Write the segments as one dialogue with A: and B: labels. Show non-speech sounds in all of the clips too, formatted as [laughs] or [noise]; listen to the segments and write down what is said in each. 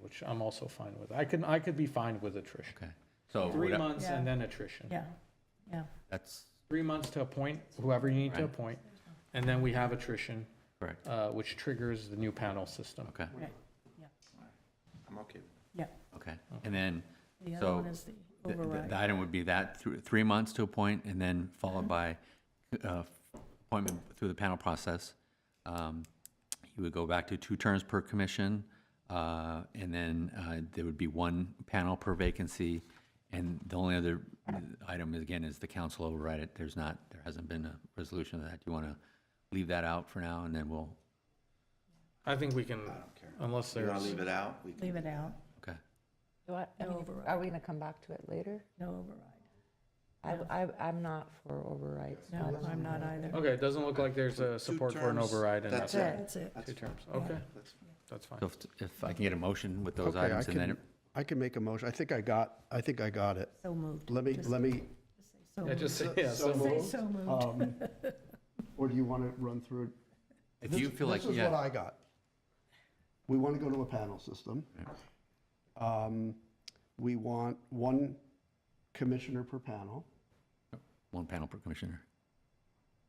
A: which I'm also fine with. I can, I could be fine with attrition.
B: Okay, so
A: Three
B: whate-
A: months and
C: Yeah.
A: then attrition.
C: Yeah, yeah.
B: that's
A: Three months to appoint whoever you need to
B: Right.
A: appoint, and then we have attrition,
B: correct,
A: uh, which triggers the new panel system.
B: okay,
D: I'm okay with
B: okay. And then
C: The
B: So,
C: other one is the
B: the- the
C: override.
B: the item would be that, thr- three months to appoint and then followed by uh, appointment through the panel process. Um, You would go back to two terms per commission, uh, and then uh, there would be one panel per vacancy. And the only other item, again, is the council override it. There's not, there hasn't been a resolution of that. Do you want to leave that out for now, and then we'll,
A: I think we can,
D: it. I don't care.
A: unless
D: You want
A: there's,
D: to leave it out? We can-
C: Leave it out,
B: okay.
E: Do I, I
C: No
E: mean,
C: override.
E: are we gonna come back to it later?
C: no override.
E: I, I, I'm not for overrides.
C: No, I'm not either.
A: okay, it doesn't look like there's a
D: Two
A: support for an
D: terms,
A: override in that.
D: that's
E: it.
C: That's it.
D: That's
A: Two
D: fine.
A: terms, okay,
D: That's fine.
A: that's fine.
B: So if- if I can get a motion with those
F: Okay, I
B: items, and then,
F: can- I can make a motion. I think I got, I think I got it.
C: So moved.
F: Let me,
C: Just
F: let me,
C: So
A: Yeah,
C: moved.
A: just, yeah, so
F: so
C: Say
F: moved.
C: so moved.
F: um, or do you want to run through it?
B: it- if you
F: This-
B: feel like,
F: This is what
B: yeah,
F: I got. We want to go to a panel system. Um, We want one commissioner per panel,
B: one panel per commissioner.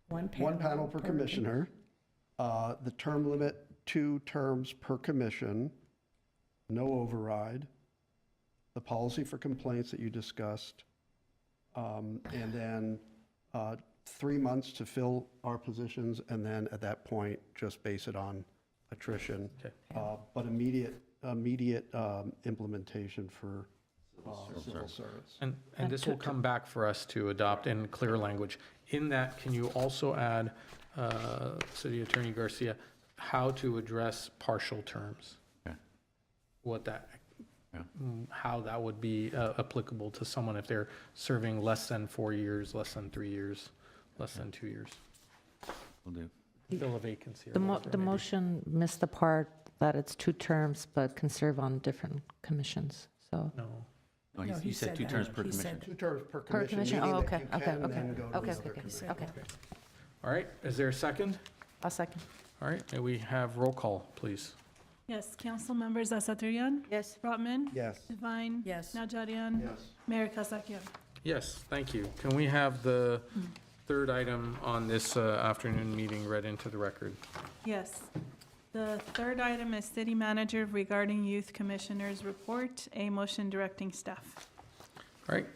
C: One panel.
F: one panel per commissioner. Uh, The term limit, two terms per commission, no override. The policy for complaints that you discussed. um, And then uh, three months to fill our positions, and then at that point, just base it on attrition.
A: Okay.
F: Uh, But immediate, immediate um, implementation for uh, civil service.
A: And, and this will come back for us to adopt in clear language. In that, can you also add, uh, City Attorney Garcia, how to address partial terms?
B: Okay.
A: What that,
B: Yeah.
A: mm, how that would be uh, applicable to someone if they're serving less than four years, less than three years, less than two years?
B: Will do.
A: Fill a vacancy or
E: The mo,
A: whatever it
E: the
A: may be.
E: motion missed the part that it's two terms, but can serve on different commissions, so.
A: No.
B: No, he
C: No,
B: Oh, s-
C: he
B: he said
C: said
B: two
C: that.
B: terms per
C: He
B: commission.
C: said
F: Two terms per
E: Per
F: commission,
E: commission,
F: meaning
E: oh,
F: that
E: okay,
F: you
E: okay,
F: can
E: okay.
F: then go to
E: Okay,
F: another
E: okay,
F: commission.
E: okay.
A: All right, is there a second?
E: I'll second.
A: All right, may we have roll call, please?
G: Yes, council members Asatryan,
E: Yes.
G: Rotman,
F: Yes.
G: Divine.
C: Yes.
G: Najarian.
F: Yes.
G: Mayor Kasakian.
A: Yes, thank you. Can we have the third item on this uh, afternoon meeting read into the record?
G: Yes. The third item is city manager regarding youth commissioners report, a motion directing staff.
A: All right,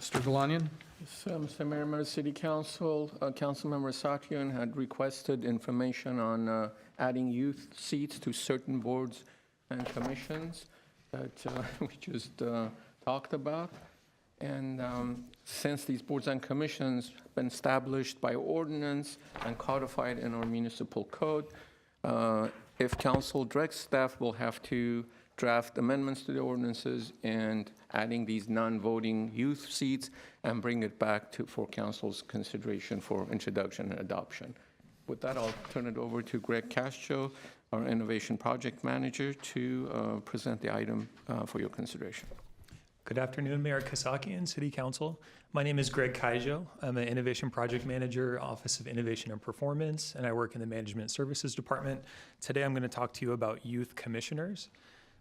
A: Mr. Galanian?
H: So, Mr. Mayor, Mayor, City Council, uh, Councilmember Sakian had requested information on uh, adding youth seats to certain boards and commissions that uh, [laughs] we just uh, talked about. And um, since these boards and commissions have been established by ordinance and codified in our municipal code, uh, if council directs staff, will have to draft amendments to the ordinances and adding these non-voting youth seats and bring it back to, for council's consideration for introduction and adoption. With that, I'll turn it over to Greg Castro, our Innovation Project Manager, to uh, present the item uh, for your consideration.
I: Good afternoon, Mayor Kasaki and City Council. My name is Greg Kaijo. I'm an Innovation Project Manager, Office of Innovation and Performance, and I work in the Management Services Department. Today, I'm going to talk to you about youth commissioners.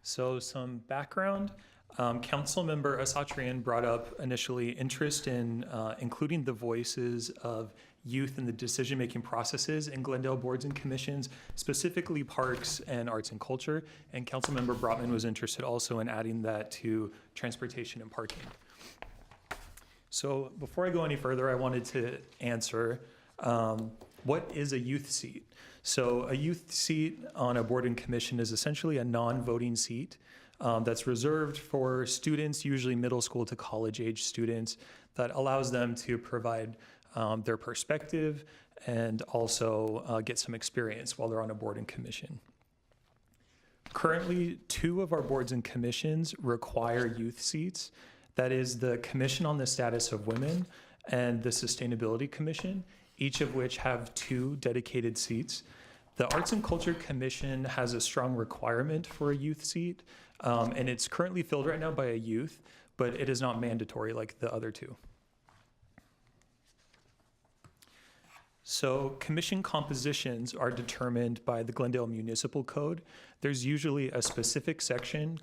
I: So, some background. Um, Councilmember Asatrian brought up initially interest in uh, including the voices of youth in the decision making processes in Glendale boards and commissions, specifically parks and arts and culture. And Councilmember Brotman was interested also in adding that to transportation and parking. So before I go any further, I wanted to answer um, what is a youth seat? So a youth seat on a board and commission is essentially a non-voting seat um, that's reserved for students, usually middle school to college age students, that allows them to provide um, their perspective and also uh, get some experience while they're on a board and commission. Currently, two of our boards and commissions require youth seats. That is the Commission on the Status of Women and the Sustainability Commission, each of which have two dedicated seats. The Arts and Culture Commission has a strong requirement for a youth seat, um, and it's currently filled right now by a youth, but it is not mandatory like the other two. So commission compositions are determined by the Glendale Municipal Code. There's usually a specific section